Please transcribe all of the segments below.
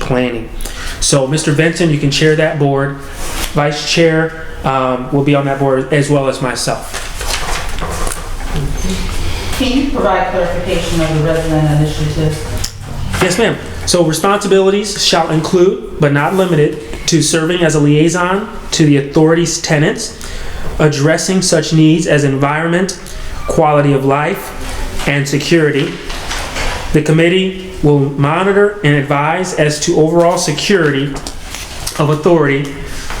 planning. So, Mr. Benson, you can chair that board. Vice Chair um, will be on that board as well as myself. Can you provide clarification of the resident initiative? Yes, ma'am. So, responsibilities shall include, but not limited to, serving as a liaison to the authority's tenants, addressing such needs as environment, quality of life, and security. The committee will monitor and advise as to overall security of authority,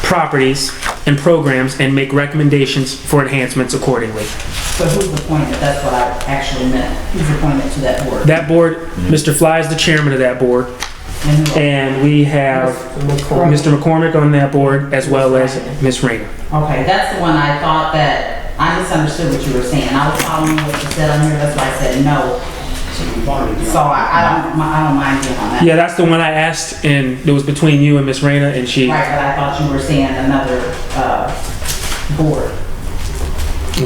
properties, and programs, and make recommendations for enhancements accordingly. So who's appointed? That's what I actually meant. Who's appointed to that board? That board, Mr. Fly is the chairman of that board, And who- and we have Mr. McCormick on that board as well as Ms. Rayner. Okay, that's the one I thought that, I misunderstood what you were saying. I was following what you said on here, that's why I said no. So I, I don't, mi- I don't mind being on that. Yeah, that's the one I asked, and it was between you and Ms. Rayner, and she, Right, but I thought you were saying another, uh, board.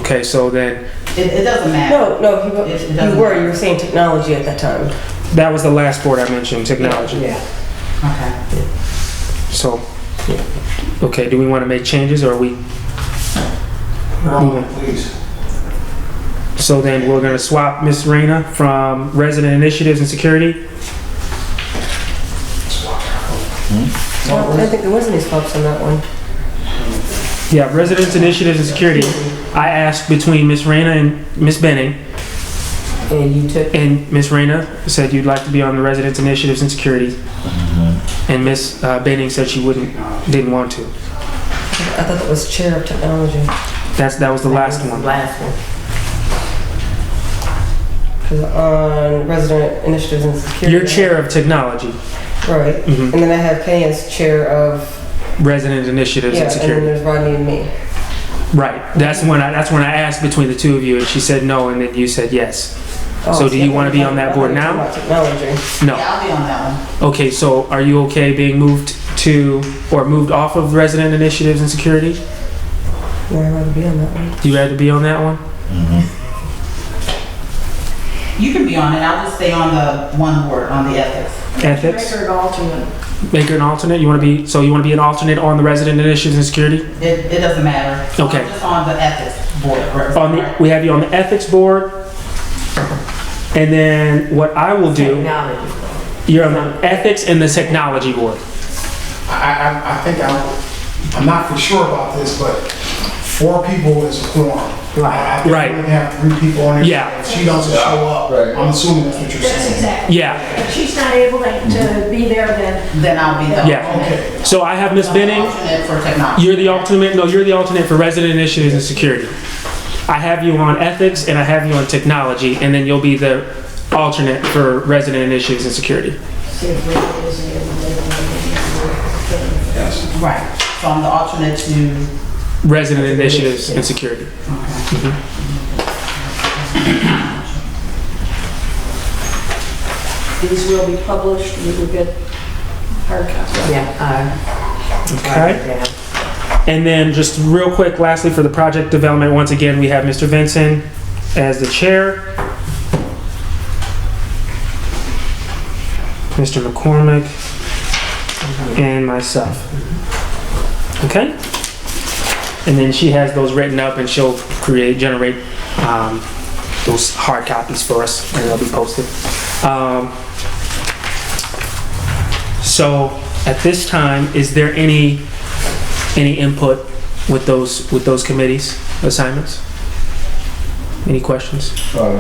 okay, so then, It, it doesn't matter. No, no, you It- it were, doesn't you were, you were saying technology at that time. that was the last board I mentioned, technology. Okay. So, okay, do we want to make changes, or are we? No, please. So then, we're gonna swap Ms. Rayner from Resident Initiatives and Security? I don't think there was any swaps on that one. Yeah, Residents Initiatives and Security, I asked between Ms. Rayner and Ms. Benning, And you took, And Ms. Reyna said you'd like to be on the residents' initiatives and security. Mm-hmm. And Ms. uh, Benning said she wouldn't, didn't want to. I thought that was chair of technology. That's, that was the last That was the one. Last one. 'Cause on resident initiatives and security. You're chair of technology, Right, Mhm. and then I have Kenny as chair of, resident initiatives yeah, and and then security. there's Rodney and me. Right, that's when I, that's when I asked between the two of you and she said no and then you said yes. Oh, So do you I thought wanna be on that board Oh, I thought you were talking about Technology. No. Yeah, I'll be on that one. Okay, so are you okay being moved to, or moved off of resident initiatives and security? No, I'd rather be on that one. You had to be on that one? You can be on it. I'll just stay on the one board, on the ethics. Ethics? Make her an alternate. Make her an alternate? You want to be, so you want to be an alternate on the resident initiatives and security? It, it doesn't matter. I'm Okay. just on the ethics board. on the, we have you on the ethics board. And then what I will do, Technology. you're on the ethics and the technology board. I, I, I think I'm, I'm not for sure about this, but four people is a quorum. I- I think Right. We're gonna have three people on it. Yeah. If she doesn't show up, I'm assuming that's what you're That's saying. exactly. Yeah, If she's not able to to be there, then Then I'll be the. Yeah. alternate. so I have Ms. Benning, Alternate for technology. you're the alternate, no, you're the alternate for resident initiatives and security. I have you on ethics and I have you on technology, and then you'll be the alternate for resident initiatives and security. see if Rita is able to. Right, so I'm the alternate to, Resident initiatives and security. These will be published, you will get hard copy. Yeah. Okay? And then just real quick, lastly, for the project development, once again, we have Mr. Vincent as the chair. Mr. McCormick and myself. Okay? And then she has those written up and she'll create, generate um, those hard copies for us and they'll be posted. Um, So at this time, is there any any input with those, with those committees, assignments? Any questions? Uh,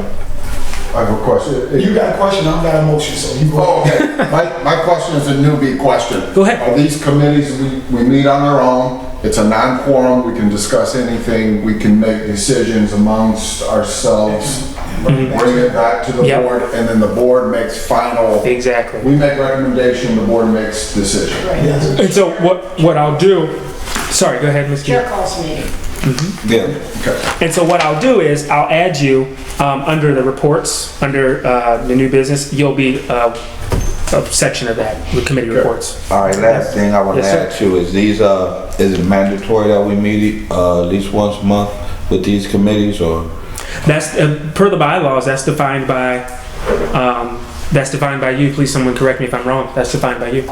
I have a question. You got a question, I've got a motion, so you go. Oh, okay. My, my question is a newbie question. Go ahead. Are these committees, we, we meet on our own, it's a non-quorum, we can discuss anything, we can make decisions amongst ourselves, bring it back to the Mm-hmm. Yep. board, and then the board makes final, Exactly. we make recommendation, the board makes decision. Yes. And so what, what I'll do, sorry, go ahead, Ms. Key. Chair calls meeting. Yeah. Okay. And so what I'll do is I'll add you um, under the reports, under uh, the new business, you'll be uh, a section of that, the committee reports. All right, last thing I want to Yes, sir. ask you is these, uh, is it mandatory that we meet, uh, at least once a month with these committees or? That's, uh, per the bylaws, that's defined by um, That's defined by you. Please, someone correct me if I'm wrong. That's defined by you.